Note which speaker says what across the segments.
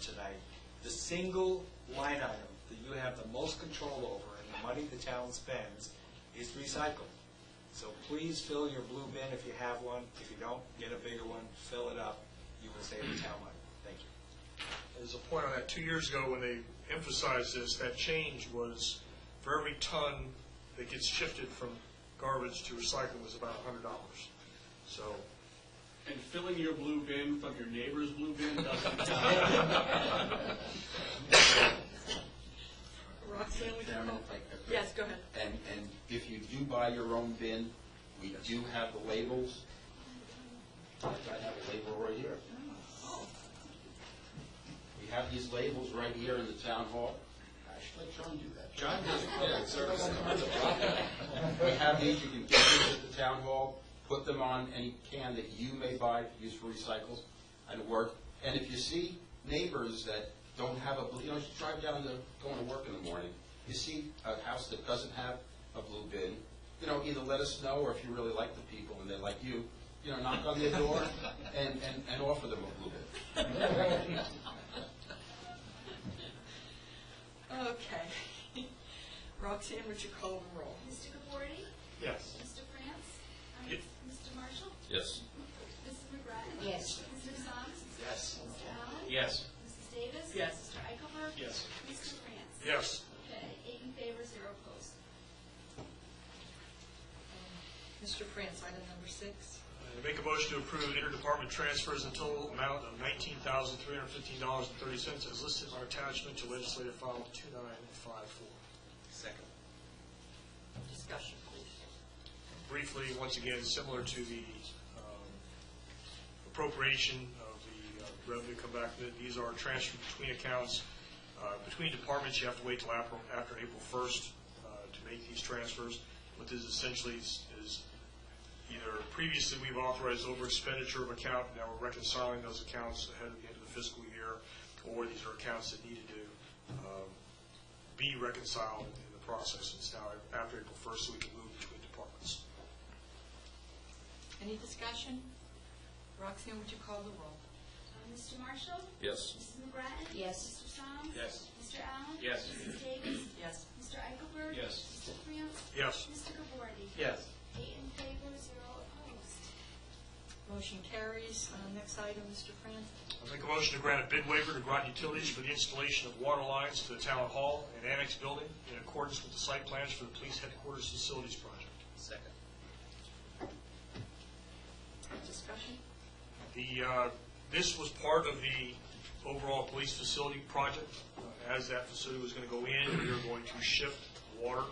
Speaker 1: tonight, the single line item that you have the most control over and the money the town spends is recycling. So please fill your blue bin if you have one. If you don't, get a bigger one, fill it up. You will save the town money. Thank you.
Speaker 2: There's a point on that, two years ago, when they emphasized this, that change was for every ton that gets shifted from garbage to recycling was about a hundred dollars. So,
Speaker 3: And filling your blue bin from your neighbor's blue bin doesn't count.
Speaker 4: Roxanne, would you
Speaker 5: Chairman,
Speaker 4: call?
Speaker 5: if I could.
Speaker 4: Yes, go ahead.
Speaker 5: And, and if you do buy your own bin, we do have the labels. I have a label right here. We have these labels right here in the town hall. Actually, John do that.
Speaker 1: John does public service.
Speaker 5: We have these, you can get these at the town hall, put them on any can that you may buy, to use for recycles, and work. And if you see neighbors that don't have a, blue- you know, you drive down to, going to work in the morning, you see a house that doesn't have a blue bin, you know, either let us know, or if you really like the people and they like you, you know, knock on their door and, and, and offer them a blue bin.
Speaker 4: Okay. Roxanne, would you call the roll?
Speaker 6: Mr. Gabori?
Speaker 2: yes.
Speaker 6: Mr. France? I mean,
Speaker 2: Yes.
Speaker 6: Mr. Marshall?
Speaker 5: Yes.
Speaker 6: Mrs. McGrattan? Yes. Mr. Song?
Speaker 1: Yes.
Speaker 6: Mr. Allen?
Speaker 3: Yes.
Speaker 6: Mrs. Davis?
Speaker 4: Yes.
Speaker 6: Mr. Eichelberg?
Speaker 3: Yes.
Speaker 6: Mr. France?
Speaker 2: Yes.
Speaker 6: Okay, eight in favor, zero opposed.
Speaker 4: Mr. France, item number six.
Speaker 2: I Make a motion to approve interdepartment transfers in total amount of nineteen thousand, three hundred and fifteen dollars and thirty cents as listed on attachment to legislative file two nine five four.
Speaker 1: Second.
Speaker 4: Discussion, please.
Speaker 2: briefly, once again, similar to the um, appropriation of the uh, revenue come back, that these are transferred between accounts. Uh, Between departments, you have to wait till April- after April 1st uh, to make these transfers. What this essentially is, is either previously we've authorized over expenditure of account, now we're reconciling those accounts ahead of the end of the fiscal year, or these are accounts that needed to um, be reconciled in the process. It's now after April 1st, so we can move between departments.
Speaker 4: Any discussion? Roxanne, would you call the roll?
Speaker 6: Uh, Mr. Marshall?
Speaker 5: Yes.
Speaker 6: Mrs. McGrattan?
Speaker 4: Yes.
Speaker 6: Mr. Song?
Speaker 3: Yes.
Speaker 6: Mr. Allen?
Speaker 3: Yes.
Speaker 6: Mrs. Davis?
Speaker 4: Yes.
Speaker 6: Mr. Eichelberg?
Speaker 3: Yes.
Speaker 6: Mr. France?
Speaker 2: Yes.
Speaker 6: Mr. Gabori?
Speaker 3: Yes.
Speaker 6: Eight in favor, zero opposed.
Speaker 4: Motion carries. Uh, Next item, Mr. France.
Speaker 2: I make a motion to grant a bid waiver to Groton Utilities for the installation of water lines to the Town Hall and Annex Building in accordance with the site plans for the Police Headquarters Facilities Project.
Speaker 1: Second.
Speaker 4: Discussion?
Speaker 2: The, uh, this was part of the overall police facility project. Uh, As that facility was going to go in, we were going to shift water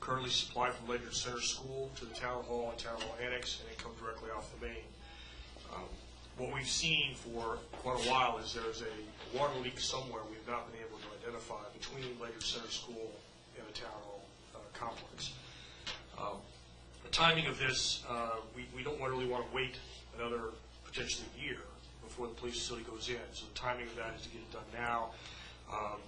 Speaker 2: currently supplied from Ledyard Center School to the Town Hall and Town Hall Annex, and it come directly off the main. Um, What we've seen for quite a while is there's a water leak somewhere we've not been able to identify between Ledyard Center School and the Town Hall uh, complex. Um, the timing of this, uh, we we don't want- really want to wait another potentially year before the police facility goes in. So the timing of that is to get it done now um,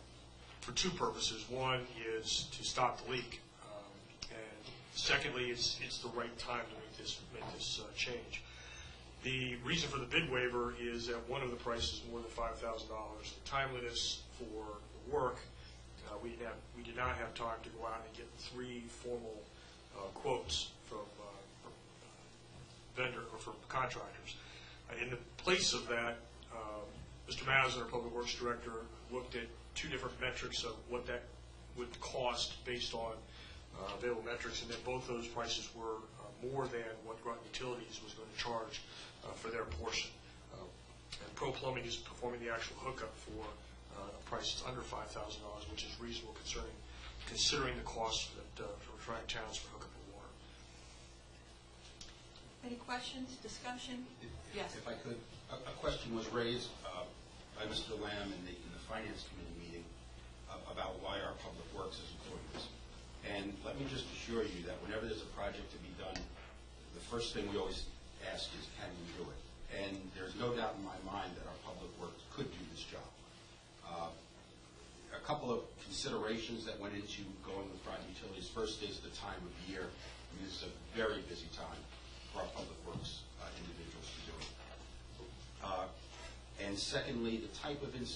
Speaker 2: for two purposes. One is to stop the leak. um, And secondly, it's it's the right time to make this, make this uh, change. The reason for the bid waiver is that one of the prices more than five thousand dollars. The timeliness for the work, uh, we didn't have, we did not have time to go out and get three formal uh, quotes from uh, vendor, or from contractors. Uh, In the place of that, um, Mr. Madison, our Public Works Director, looked at two different metrics of what that would cost based on uh, available metrics, and then both those prices were uh, more than what Groton Utilities was going to charge uh, for their portion. Uh, And Pro Plumbing is performing the actual hookup for uh, a price that's under $5,000, which is reasonable concerning, considering the cost that, uh, for trying towns for hookup of water.
Speaker 4: Any questions, discussion?
Speaker 5: If- if-
Speaker 4: Yes.
Speaker 5: If I could, a, a question was raised uh, by Mr. Lamb in the, in the Finance Committee meeting a- about why our public works is important. to us. And let me just assure you that whenever there's a project to be done, the first thing we always ask is, can we do it? And there's no doubt in my mind that our public works could do this job. Uh, a couple of considerations that went into going with private utilities. First is the time of year. I mean, It's a very busy time for our public works uh, individuals to do it. Uh, And secondly, the type of installation